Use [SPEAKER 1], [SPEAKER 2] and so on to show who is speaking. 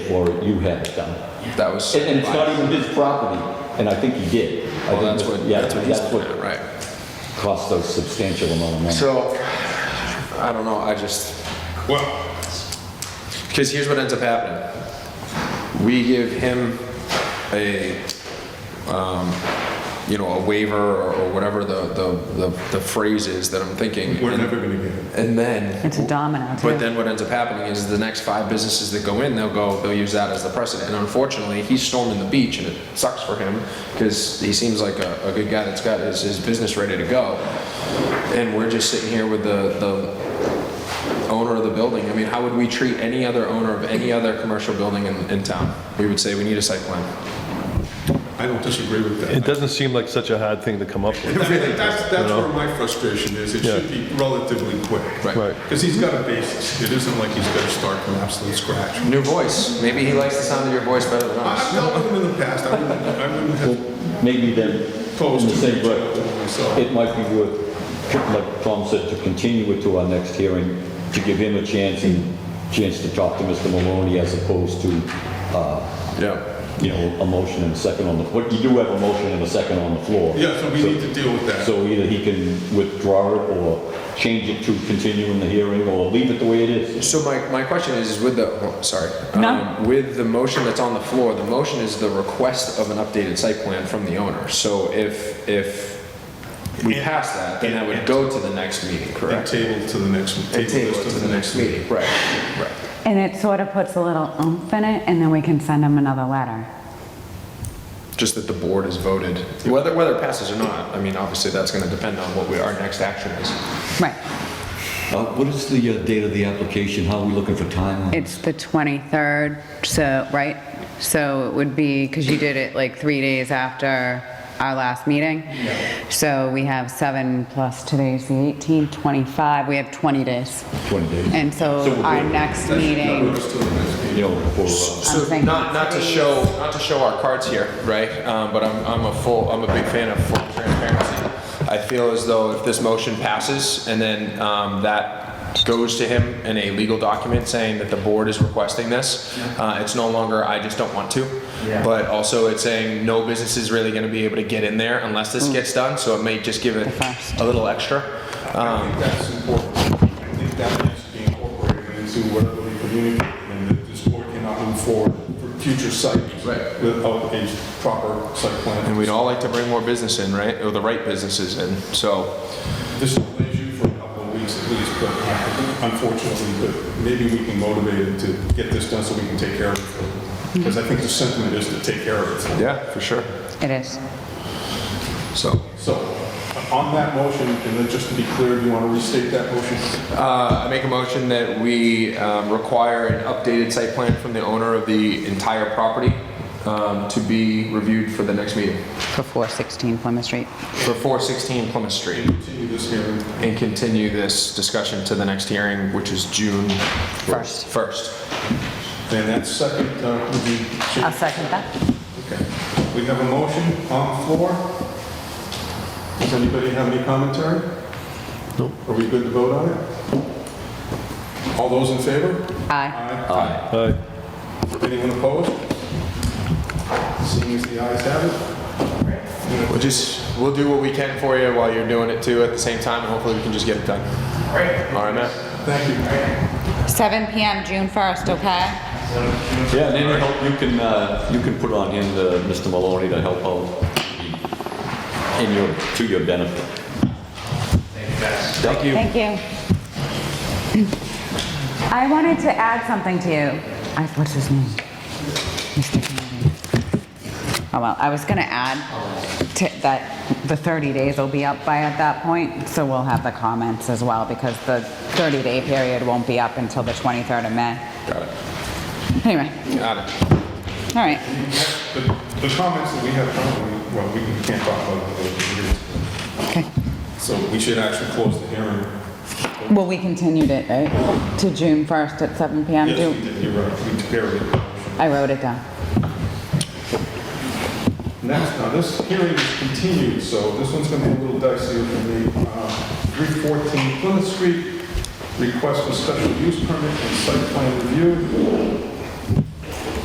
[SPEAKER 1] or you have it done.
[SPEAKER 2] That was.
[SPEAKER 1] And and it's not even his property, and I think he did. I think
[SPEAKER 2] Well, oh, that's
[SPEAKER 1] it was-
[SPEAKER 2] what,
[SPEAKER 1] yeah,
[SPEAKER 2] that's what he's
[SPEAKER 1] that's
[SPEAKER 2] looking at, right?
[SPEAKER 1] Cost a substantial amount of money.
[SPEAKER 2] So, I don't know, I just.
[SPEAKER 3] Well,
[SPEAKER 2] Because here's what ends up happening. We give him a, um, you know, a waiver or or whatever the, the, the the phrase is that I'm thinking.
[SPEAKER 3] we're
[SPEAKER 2] and-
[SPEAKER 3] never gonna get it.
[SPEAKER 2] And then.
[SPEAKER 4] It's a domino, too.
[SPEAKER 2] But then what ends up happening is the next five businesses that go in, they'll go, they'll use that as the precedent. And unfortunately, he's storming the beach and it sucks for him because he seems like a, a good guy that's got his, his business ready to go. And we're just sitting here with the, the owner of the building. I mean, how would we treat any other owner of any other commercial building in, in town? We would say, we need a site plan.
[SPEAKER 3] I don't disagree with that.
[SPEAKER 5] It doesn't seem like such a hard thing to come up with.
[SPEAKER 3] I mean, That's, that's
[SPEAKER 5] You know?
[SPEAKER 3] where my frustration is. It
[SPEAKER 5] Yeah.
[SPEAKER 3] should be relatively quick.
[SPEAKER 5] Right.
[SPEAKER 3] Because he's got a basis. It isn't like he's got to start from absolute scratch.
[SPEAKER 2] New voice. Maybe he likes the sound of your voice better than
[SPEAKER 3] I- I've
[SPEAKER 2] ours.
[SPEAKER 3] dealt with him in the past. I wouldn't, I wouldn't have
[SPEAKER 1] Maybe then, in
[SPEAKER 3] posed
[SPEAKER 1] the
[SPEAKER 3] to
[SPEAKER 1] same
[SPEAKER 3] reach
[SPEAKER 1] breath,
[SPEAKER 3] out to him myself.
[SPEAKER 1] it might be worth, like Tom said, to continue it to our next hearing, to give him a chance and chance to talk to Mr. Maloney as opposed to, uh,
[SPEAKER 2] Yeah.
[SPEAKER 1] you know, a motion and a second on the, but you do have a motion and a second on the floor.
[SPEAKER 3] Yeah, so we need to deal with that.
[SPEAKER 1] So either he can withdraw it or change it to continuing the hearing or leave it the way it is.
[SPEAKER 2] So my, my question is, is with the, oh, sorry.
[SPEAKER 4] No.
[SPEAKER 2] Um, With the motion that's on the floor, the motion is the request of an updated site plan from the owner. So if, if we pass that, then that would go to the next meeting,
[SPEAKER 3] And
[SPEAKER 2] correct?
[SPEAKER 3] table to the next, table
[SPEAKER 2] And table
[SPEAKER 3] this
[SPEAKER 2] it to the next meeting, right, right.
[SPEAKER 4] And it sort of puts a little oomph in it, and then we can send them another letter.
[SPEAKER 2] Just that the board has voted, whether, whether it passes or not, I mean, obviously, that's gonna depend on what we, our next action is.
[SPEAKER 4] Right.
[SPEAKER 1] Uh, What is the uh, date of the application? How are we looking for time? on it?
[SPEAKER 4] It's the 23rd, so, right? So it would be, because you did it like three days after our last meeting. So we have seven plus today's the 18th, 25, we have 20 days.
[SPEAKER 1] 20 days.
[SPEAKER 4] And
[SPEAKER 1] So
[SPEAKER 4] so
[SPEAKER 1] we'll
[SPEAKER 4] our
[SPEAKER 1] do it.
[SPEAKER 4] next
[SPEAKER 3] That should
[SPEAKER 4] meeting.
[SPEAKER 3] cover us till the next meeting.
[SPEAKER 1] You know, for, uh,
[SPEAKER 2] So
[SPEAKER 4] thinking
[SPEAKER 2] not, not to
[SPEAKER 4] three.
[SPEAKER 2] show, not to show our cards here, right? Um, but I'm, I'm a full, I'm a big fan of full transparency. I feel as though if this motion passes and then, um, that goes to him in a legal document saying that the board is requesting this, uh, it's no longer, I just don't want to. But also it's saying no business is really gonna be able to get in there unless this gets done, so it may just give it
[SPEAKER 4] first.
[SPEAKER 2] a little extra.
[SPEAKER 3] I think that's important. I think that needs to be incorporated into whatever we communicate, and that this board cannot move forward for future sites
[SPEAKER 2] Right.
[SPEAKER 3] without a proper site plan.
[SPEAKER 2] And we'd all like to bring more business in, right? Or the right businesses in, so.
[SPEAKER 3] This will lay you for a couple of weeks at least, but unfortunately, but maybe we can motivate it to get this done so we can take care of it. Because I think the sentiment is to take care of it.
[SPEAKER 2] Yeah, for sure.
[SPEAKER 4] It is.
[SPEAKER 2] So.
[SPEAKER 3] So on that motion, and then just to be clear, do you want to restate that motion?
[SPEAKER 2] Uh, I make a motion that we um, require an updated site plan from the owner of the entire property um, to be reviewed for the next meeting
[SPEAKER 4] For 416 Plymouth Street.
[SPEAKER 2] for 416 Plymouth Street
[SPEAKER 3] Continue this hearing.
[SPEAKER 2] and continue this discussion to the next hearing, which is June
[SPEAKER 4] First.
[SPEAKER 2] 1st.
[SPEAKER 3] And that second, uh, would be.
[SPEAKER 4] I'll second that.
[SPEAKER 3] Okay. We have a motion on the floor. Does anybody have any commentary? No. Are we good to vote on it? All those in favor?
[SPEAKER 4] Aye.
[SPEAKER 3] Aye.
[SPEAKER 5] Aye.
[SPEAKER 3] Anyone opposed? Seeing as the ayes have it,
[SPEAKER 2] We'll just, we'll do what we can for you while you're doing it too at the same time, and hopefully we can just get it done. All right, Matt?
[SPEAKER 3] thank you.
[SPEAKER 4] 7 PM, June 1st, okay?
[SPEAKER 1] Yeah, and any help you can, uh, you can put on him, uh, Mr. Maloney, to help out in your, to your benefit.
[SPEAKER 2] Thank you.
[SPEAKER 4] Thank you. I wanted to add something to you. I- What's his name? Mr. Kennedy. Oh, well, I was gonna add to- that the 30 days will be up by at that point, so we'll have the comments as well, because the 30-day period won't be up until the 23rd of May.
[SPEAKER 2] Got it.
[SPEAKER 4] Anyway,
[SPEAKER 2] Got it.
[SPEAKER 4] all right.
[SPEAKER 3] The the comments that we have currently, well, we can- can't talk about those here.
[SPEAKER 4] Okay.
[SPEAKER 3] So we should actually close the hearing.
[SPEAKER 4] Well, we continued it, right? To June 1st at 7 PM?
[SPEAKER 3] Yes,
[SPEAKER 4] Do-
[SPEAKER 3] we did, you're right, we carried it.
[SPEAKER 4] I wrote it down.
[SPEAKER 3] Next, now this hearing is continued, so this one's gonna be a little dicey for me. Uh, 314 Plymouth Street, request for special use permit and site plan review.